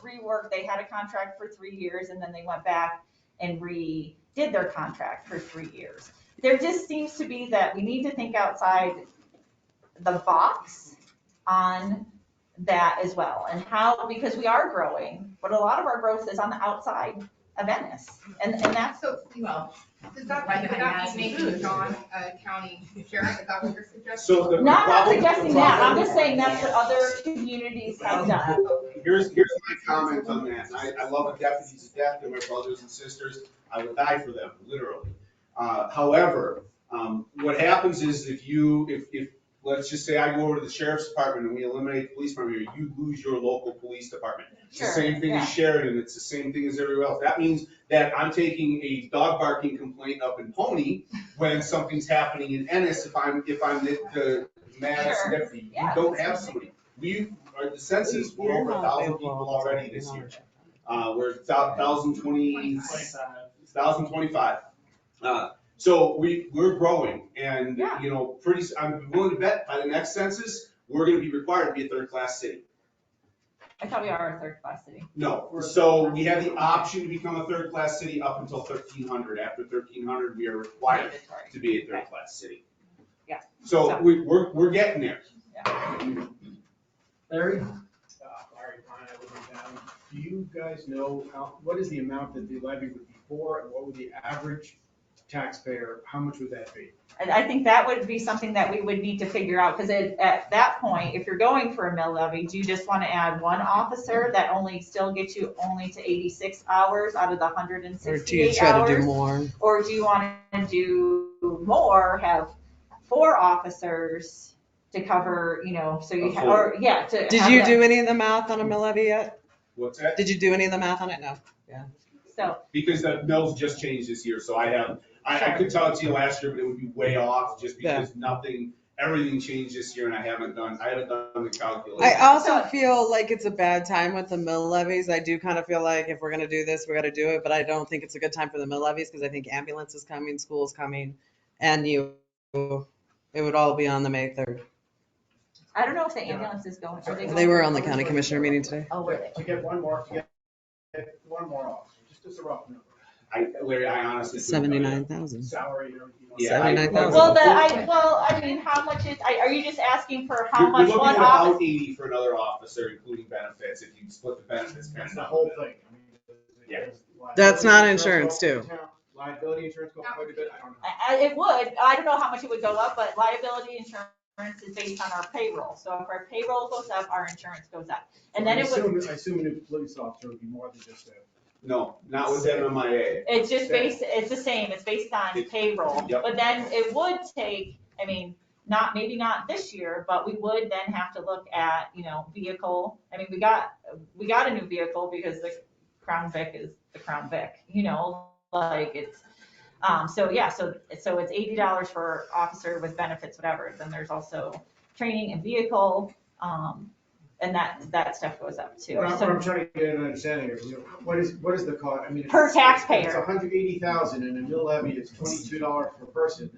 rework, they had a contract for three years and then they went back and redid their contract for three years. There just seems to be that we need to think outside the box on that as well and how, because we are growing, but a lot of our growth is on the outside of Venice. And, and that's, So, Well, does that, Right would behind that us be is making food. John a county sheriff, is that what you're suggesting? So the. the no, I'm not problem- suggesting the that, I'm problem- just saying that's what other communities have done. Here's, here's my comment on that. I, I love the deputies to death, they're my brothers and sisters. I would die for them, literally. Uh, however, um, what happens is if you, if, if, let's just say I go over to the sheriff's department and we eliminate the police department, you lose your local police department. It's the Sure, same thing as Sheridan, it's the same thing as everywhere else. That means that I'm taking a dog barking complaint up in Pony when something's happening in Ennis if I'm, if I'm the, the Madison Sure, deputy. You yeah. don't have somebody. We, our, the census, we're over a thousand people already this year. Uh, we're a thousand twenty, thousand twenty-five. Uh, so we, we're growing and, Yeah. you know, pretty, s- I'm willing to bet by the next census, we're gonna be required to be a third-class city. I thought we are a third class city. No, so we have the option to become a third-class city up until thirteen hundred. After thirteen hundred, we are required Mandatory. to be a third-class city. Yeah. So So- we, we're, we're getting there. Larry? Larry, Ryan, I live in town. Do you guys know how, what is the amount that the levy would be for and what would the average taxpayer, how much would that be? And I think that would be something that we would need to figure out, because at, at that point, if you're going for a mill levy, do you just want to add one officer that only still gets you only to eighty-six hours out of the hundred and Or do you sixty-eight try to do hours? more? Or do you want to do more, have four officers to cover, you know, so you, ha- or, yeah, to. Did have you that- do any of the math on a mill levy yet? What's that? Did you do any of the math on it? No. So, Because the mills just changed this year, so I have, I, I could tell it to you last year, but it would be way off just because nothing, everything changed this year and I haven't done, I haven't done the I uh, calculation. also feel like it's a bad time with the mill levies. I do kind of feel like if we're gonna do this, we gotta do it, but I don't think it's a good time for the mill levies because I think ambulance is coming, school is coming, and you, it would all be on the May third. I don't know if the ambulance is going, are they going? They were on the county commissioner meeting today. Oh, were they? To get one more, to get, get one more officer, just as a rough number, I, Larry, I honestly. couldn't tell you. Seventy-nine thousand. salary and everything. else. Yeah, I- 79,000. Well, the, I, well, I mean, how much is, I- are you just asking for how You're- much You're one looking at officer? about eighty for another officer, including benefits, if you split the benefits. kind That's of the down. whole thing. I mean, Yeah. That's not liability insurance, goes up in town, Liability insurance go up quite a bit, I don't know. I- I- It would, I don't know how much it would go up, but liability insurance is based on our payroll. So if our payroll goes up, our insurance goes up. And then I it would, assume- I assume a new police officer would be more than just a. No, not with MMIA. it's just based, it's the same, it's based on payroll. Yep. But then it would take, I mean, not, maybe not this year, but we would then have to look at, you know, vehicle. I mean, we got, we got a new vehicle because the Crown Vic is the Crown Vic, you know, like it's, um, so yeah, so, so it's eighty dollars for officer with benefits, whatever. Then there's also training and vehicle, um, and that, that stuff goes up too. What I'm, what So I'm trying to get an understanding of, you know, what is, what is the cost, I mean. if Per it's- if It's taxpayer. hundred eighty thousand and a mill levy is twenty-two dollars per person.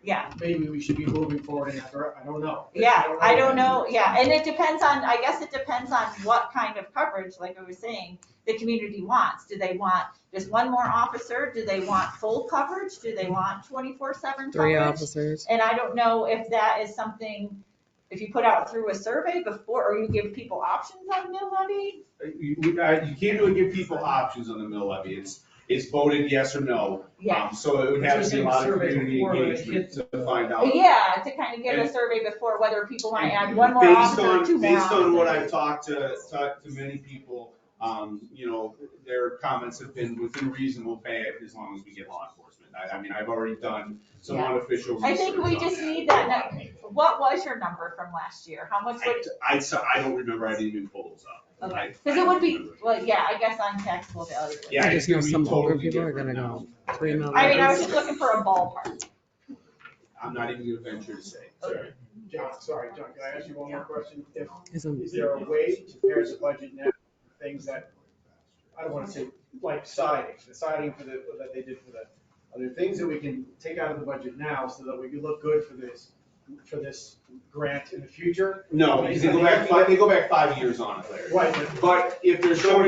Yeah. Maybe we should be moving forward after, I don't know. Yeah, I don't know, yeah, and it depends on, I guess it depends on what kind of coverage, like I was saying, the community wants. Do they want just one more officer? Do they want full coverage? Do they want twenty-four seven Three coverage? officers. And I don't know if that is something, if you put out through a survey before, or you give people options on mill levy? You, you uh, you can't really give people options on the mill levy. It's, it's voted yes or no. Yeah, Um, So it would have to be a lot of community Surveys before they engagement hit to find out. yeah, to kind of give a And- survey before whether people want to add one more officer or two more Based on, based on what officers. I've talked to, talked to many people, um, you know, their comments have been within reasonable pay as long as we get law enforcement. I, I mean, I've already done some Yeah. unofficial research I think we on just that. need that What was your number from last year? How much would I, I, so- I don't remember, I didn't even pull those up. I- Because it would I be, don't remember. well, yeah, I guess on taxable value. Yeah, I just it's gonna know be some older totally people are different gonna now. Three mill I mean, I was levies. just looking for a ballpark. I'm not even gonna venture to say, sorry. John, sorry, John, can I ask you one more question? If, Is a- is there a way to pare the budget now, for things that, I don't wanna say, like siding, the siding for the, that they did for the, are there things that we can take out of the budget now so that we can look good for this for this grant in the future? No, because they go back, five- they go back five years on it, Larry. Right, but But if they're showing